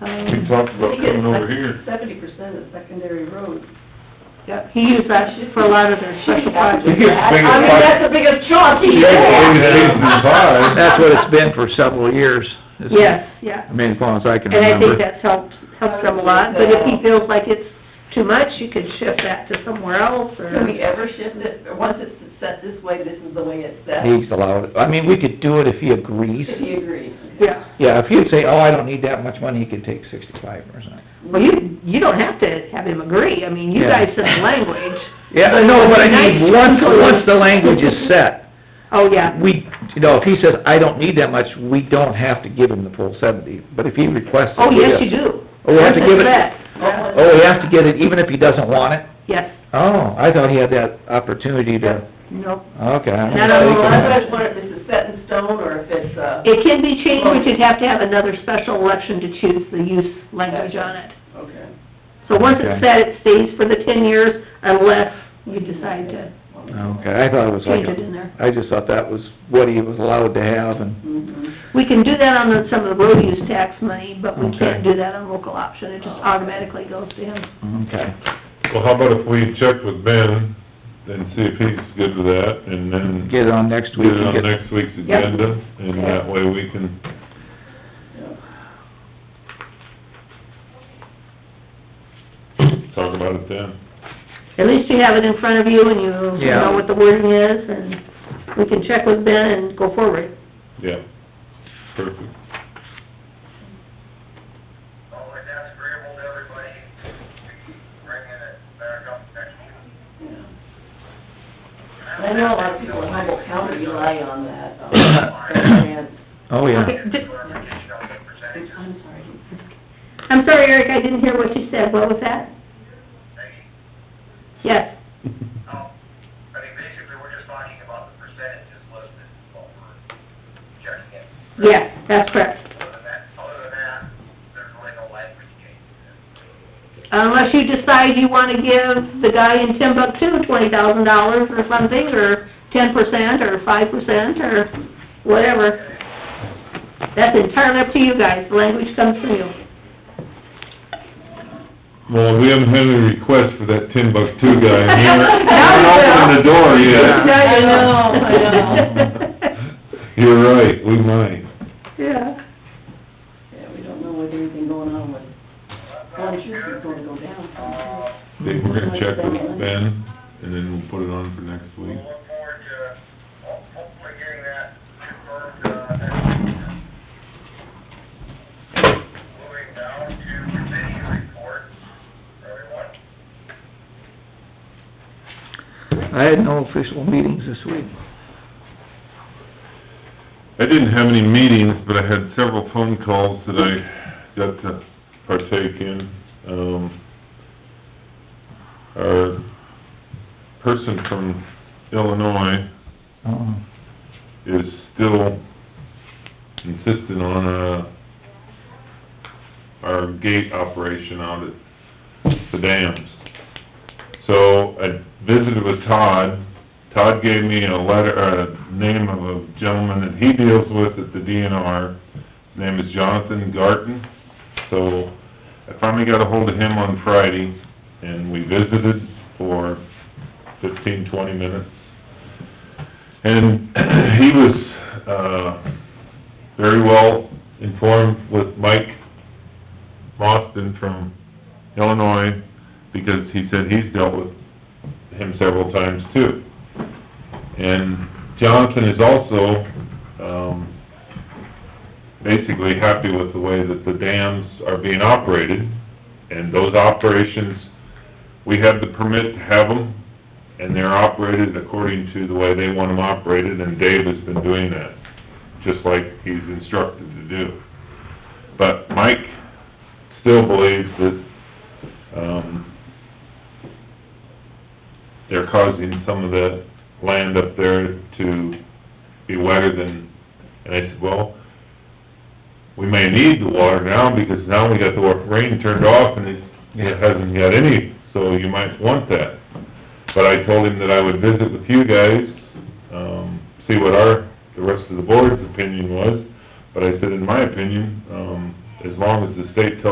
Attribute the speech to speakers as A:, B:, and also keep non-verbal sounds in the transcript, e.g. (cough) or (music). A: Um,
B: We talked about coming over here.
C: Seventy percent is secondary roads.
A: yeah, he used that for a lot of their special
B: He
A: projects.
B: gets bigger
C: I mean, that's
B: pie.
C: the biggest chunk
B: He
C: he
B: gets bigger
C: had.
B: pie than pie.
D: That's what it's been for several years. isn't it?
A: Yes, yeah,
D: I mean, as long as I can
A: and I think
D: remember.
A: that's helped, helps them a lot, but if he feels like it's too much, you could shift that to somewhere else,
C: Can
A: or,
C: we ever shift it, or once it's set this way, this is the way it's set,
D: He's allowed, it. I mean, we could do it if he agrees.
C: if he agrees?
A: yeah.
D: Yeah, if he'd say, oh, I don't need that much money, he could take sixty-five or something.
A: Well, you, you don't have to have him agree, I mean, you
D: Yeah.
A: guys said the language.
D: Yeah, I know, but I mean, once, once the language is set,
A: Oh, yeah,
D: we, you know, if he says, I don't need that much, we don't have to give him the full seventy, but if he requests it,
A: oh,
D: we
A: yes,
D: do.
A: you do.
D: Oh, we have to
A: Once
D: give
A: it's
D: it-
A: set,
D: Oh, we have to get it, even if he doesn't want it?
A: Yes,
D: Oh, I thought he had that opportunity to,
A: no,
D: okay. I'm
A: Not
C: I
A: on
C: don't know,
A: the
C: that's what
D: mistaken.
C: I was wondering, if this is set in stone, or if it's, uh,
A: it can be changed, we could have to have another special election to choose the use language on it.
C: okay.
A: So once it's
D: Okay.
A: set, it stays for the ten years unless you decide to,
D: Okay, I thought it was like,
A: Change it in there.
D: a- I just thought that was what he was allowed to have, and,
C: Mhm.
A: we can do that on the- some of the road use tax money, but we can't
D: Okay.
A: do that on local option, it just automatically goes to him.
D: okay.
B: Well, how about if we check with Ben and see if he's good with that, and then
D: Get it on next
B: get
D: week.
B: it
D: and
B: on
D: get-
B: next week's agenda, and that way we can, talk about it then.
A: At least you have it in front of you and you
D: Yeah.
A: know what the wording is, and we can check with Ben and go forward.
B: Yeah, perfect.
E: Well, if that's agreeable to everybody, we bring it back up next week.
C: Yeah. I know a lot of people in Humboldt County rely on that, um,
B: (coughs)
C: grant.
D: Oh, yeah.
A: Okay, di-
E: Clarification on the percentage.
C: I'm sorry.
A: I'm sorry, Eric, I didn't hear what you said, what was that?
E: They-
A: Yes,
E: oh, I mean, basically, we're just talking about the percentages listed, what we're checking in.
A: yes, that's correct.
E: Other than that, other than that, there's really no language change.
A: Unless you decide you wanna give the guy in Timbuktu twenty thousand dollars or something, or ten percent, or five percent, or whatever. That's entirely up to you guys, the language comes from you.
B: Well, we haven't had any requests for that Timbuktu guy, and
C: (laughs)
B: he
A: No,
B: hasn't opened the door
A: No,
B: yet.
A: you
C: I know,
A: don't.
C: I know.
B: (laughs) You're right, we might.
A: Yeah.
C: Yeah, we don't know with anything going on with, well, I'm sure it's gonna go
E: Uh,
C: down.
B: They we're gonna check with Ben, and then we'll put it on for next
E: We'll
B: week.
E: look forward to ho- hopefully getting that confirmed, uh, next week. Moving down to committee reports, everyone.
D: I had no official meetings this week.
B: I didn't have any meetings, but I had several phone calls that I got to partake in. Um, our person from Illinois
D: Oh,
B: is still insisting on, uh, our gate operation out at the dams. So I visited with Todd. Todd gave me a letter, a name of a gentleman that he deals with at the DNR. His name is Jonathan Garten. So I finally got ahold of him on Friday and we visited for fifteen, twenty minutes. And (clears throat) he was, uh, very well informed with Mike Mostyn from Illinois, because he said he's dealt with him several times too. And Jonathan is also, um, basically happy with the way that the dams are being operated, and those operations, we have the permit to have them, and they're operated according to the way they want them operated, and Dave has been doing that, just like he's instructed to do. But Mike still believes that, um, they're causing some of the land up there to be wetter than, and I said, well, we may need the water now, because now we got the wa- rain turned off and it- it hasn't got any, so you might want that. But I told him that I would visit with you guys, um, see what our, the rest of the board's opinion was. But I said, in my opinion, um, as long as the state tells